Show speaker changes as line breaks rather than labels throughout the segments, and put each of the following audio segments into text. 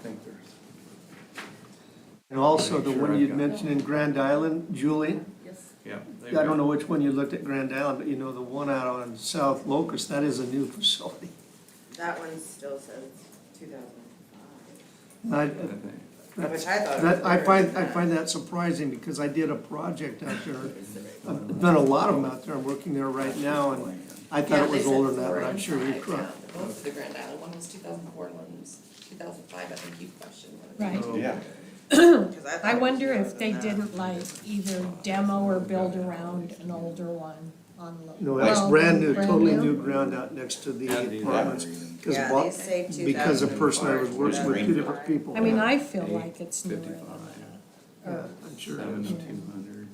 think there's.
And also the
Make sure
one
I've
you'd
got-
mentioned in Grand Island, Julie,
Yes,
Yeah.
I don't know which one you looked at Grand Island, but you know, the one out on South Locust, that is a new facility.
That one still says two thousand
And I,
five,
that's-
which I thought.
that, I find, I find that surprising because I did a project out there. I've done a lot of them out there, I'm working there right now, and I thought it was older than that, but I'm sure you're correct.
Both the Grand Island one was two thousand four, and one was two thousand five, I think you questioned one of them.
Right.
Yeah.
I wonder if they didn't like either demo or build around an older one on. lo-
No, that's
well,
brand new,
brand
totally new ground out next to the apartments. 'cause
Yeah,
Bob-
they say two thousand.
Because a person I was working with, two different people.
I mean,
Yeah,
I feel like it's newer than that. Or-
I'm sure it is.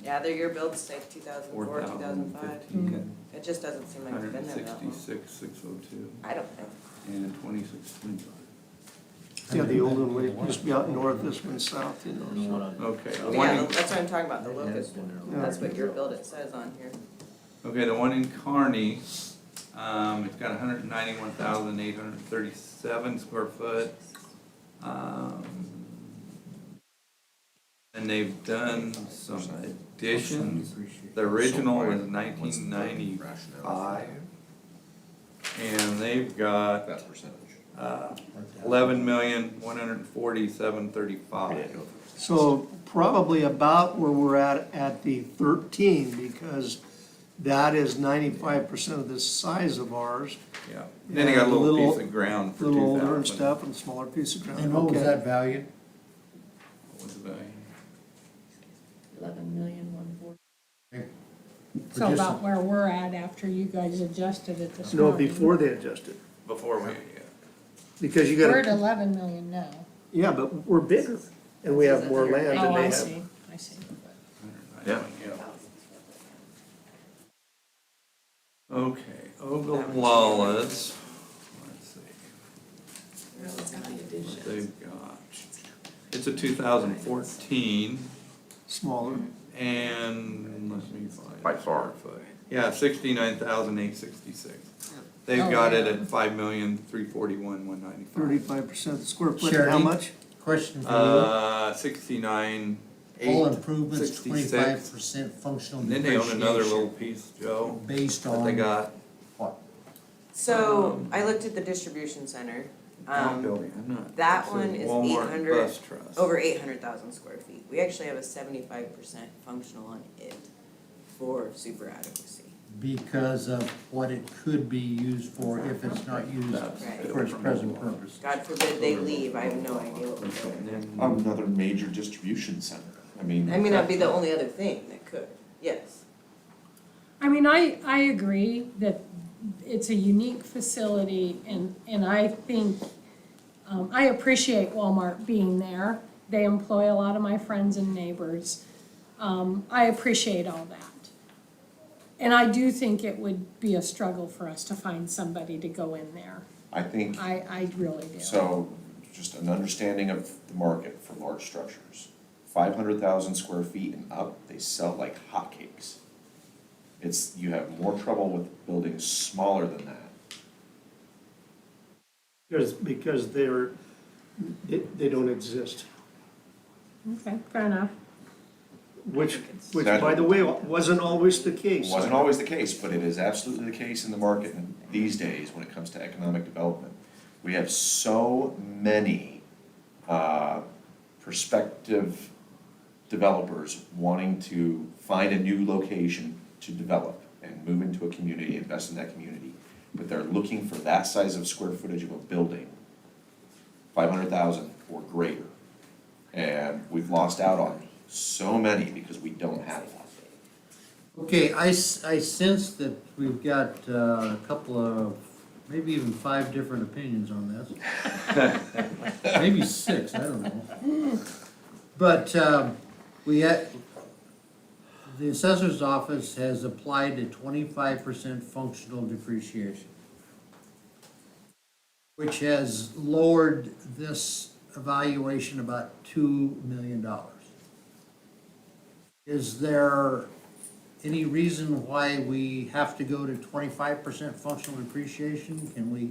Yeah, their year builds say two thousand four, two thousand five.
Mm-hmm.
It just doesn't seem like it's been there that long.
six oh two,
I don't think.
and twenty-six twenty-five.
Yeah, the old one, we used to be out north, this one's south, you know, so.
Okay, the one
Yeah,
in,
that's what I'm talking about, the locust one.
Yeah.
That's what your build it says on here.
okay, the one in Kearney, um, it's got hundred and ninety-one thousand eight hundred and thirty-seven square foot. Um, And they've done some additions, the original was nineteen ninety-five. And they've got
That percentage.
uh, eleven million, one hundred and forty-seven, thirty-five.
So probably about where we're at, at the thirteen, because that is ninety-five percent of the size of ours.
Yeah, then they got a
Yeah, a
little
little-
piece of ground for two thousand.
Little older and stuff and smaller piece of ground.
And what was
Okay.
that valued?
Eleven million, one forty.
So about where we're at after you guys adjusted it this
No,
morning.
before they adjusted,
Before we, yeah.
because you
We're at
gotta,
eleven million now.
yeah, but we're bigger, and we have more land than
Oh,
they
I
have.
see, I see.
Yeah.
Okay, Oglala's, let's see, what they've got. It's a two thousand fourteen
Smaller,
and, let me find.
By far.
Yeah, sixty-nine thousand eight sixty-six.
Oh.
They've got it at five million, three forty-one, one ninety-five.
thirty-five percent square foot, and how
Charity?
much?
Question for
Uh, sixty-nine,
you. All
eight,
improvements, twenty-five
sixty-six.
percent functional
And then they own another little
depreciation
piece, Joe,
based
that they
on
got.
what?
So I looked at the distribution center. Um, that one is Oh,
Walmart
800
Bus Trust.
over eight hundred thousand square feet. We actually have a seventy-five percent functional on it for super adequacy.
Because of what it could be used for if it's not used
Right.
for its present purpose.
God forbid they leave, I have no idea what we're doing.
Another major distribution center, I mean.
I mean, that'd be the only other thing that could, yes.
I mean, I, I agree that it's a unique facility and, and I think, um, I appreciate Walmart being there. They employ a lot of my friends and neighbors. Um, I appreciate all that. And I do think it would be a struggle for us to find somebody to go in there.
I think,
I, I really do.
so, just an understanding of the market for large structures. Five hundred thousand square feet and up, they sell like hotcakes. It's, you have more trouble with buildings smaller than that.
Because, because they're, they, they don't exist.
Okay, fair enough.
Which, which, by the way, wasn't always the case.
Wasn't always the case, but it is absolutely the case in the market these days when it comes to economic development. We have so many uh, prospective developers wanting to find a new location to develop and move into a community, invest in that community. But they're looking for that size of square footage of a building, five hundred thousand or greater. And we've lost out on so many because we don't have one.
Okay, I, s- I sense that we've got uh, a couple of, maybe even five different opinions on this. Maybe six, I don't know. But um, we had, the assessor's office has applied a twenty-five percent functional depreciation, which has lowered this evaluation about two million dollars. Is there any reason why we have to go to twenty-five percent functional depreciation? Can we